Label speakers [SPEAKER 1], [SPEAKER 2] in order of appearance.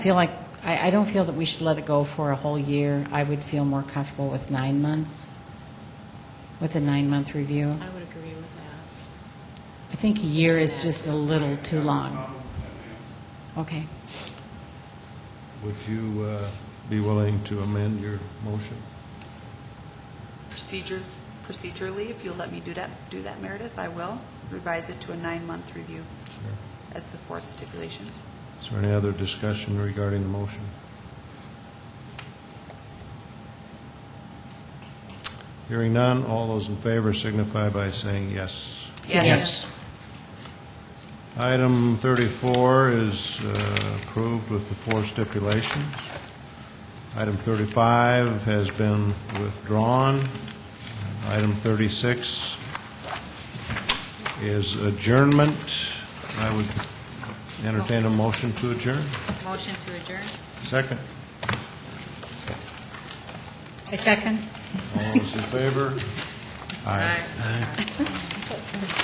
[SPEAKER 1] feel like, I, I don't feel that we should let it go for a whole year. I would feel more comfortable with nine months, with a nine-month review.
[SPEAKER 2] I would agree with that.
[SPEAKER 1] I think a year is just a little too long. Okay.
[SPEAKER 3] Would you uh, be willing to amend your motion?
[SPEAKER 4] Procedure, procedurally, if you'll let me do that, do that, Meredith, I will revise it to a nine-month review
[SPEAKER 3] Sure.
[SPEAKER 4] as the fourth stipulation.
[SPEAKER 3] Is there any other discussion regarding the motion? Hearing none, all those in favor signify by saying yes. Item 34 is uh, approved with the four stipulations. Item 35 has been withdrawn. Item 36 is adjournment. I would entertain a motion to adjourn.
[SPEAKER 4] Motion to adjourn?
[SPEAKER 3] Second.
[SPEAKER 1] A second?
[SPEAKER 3] All those in favor? Aye.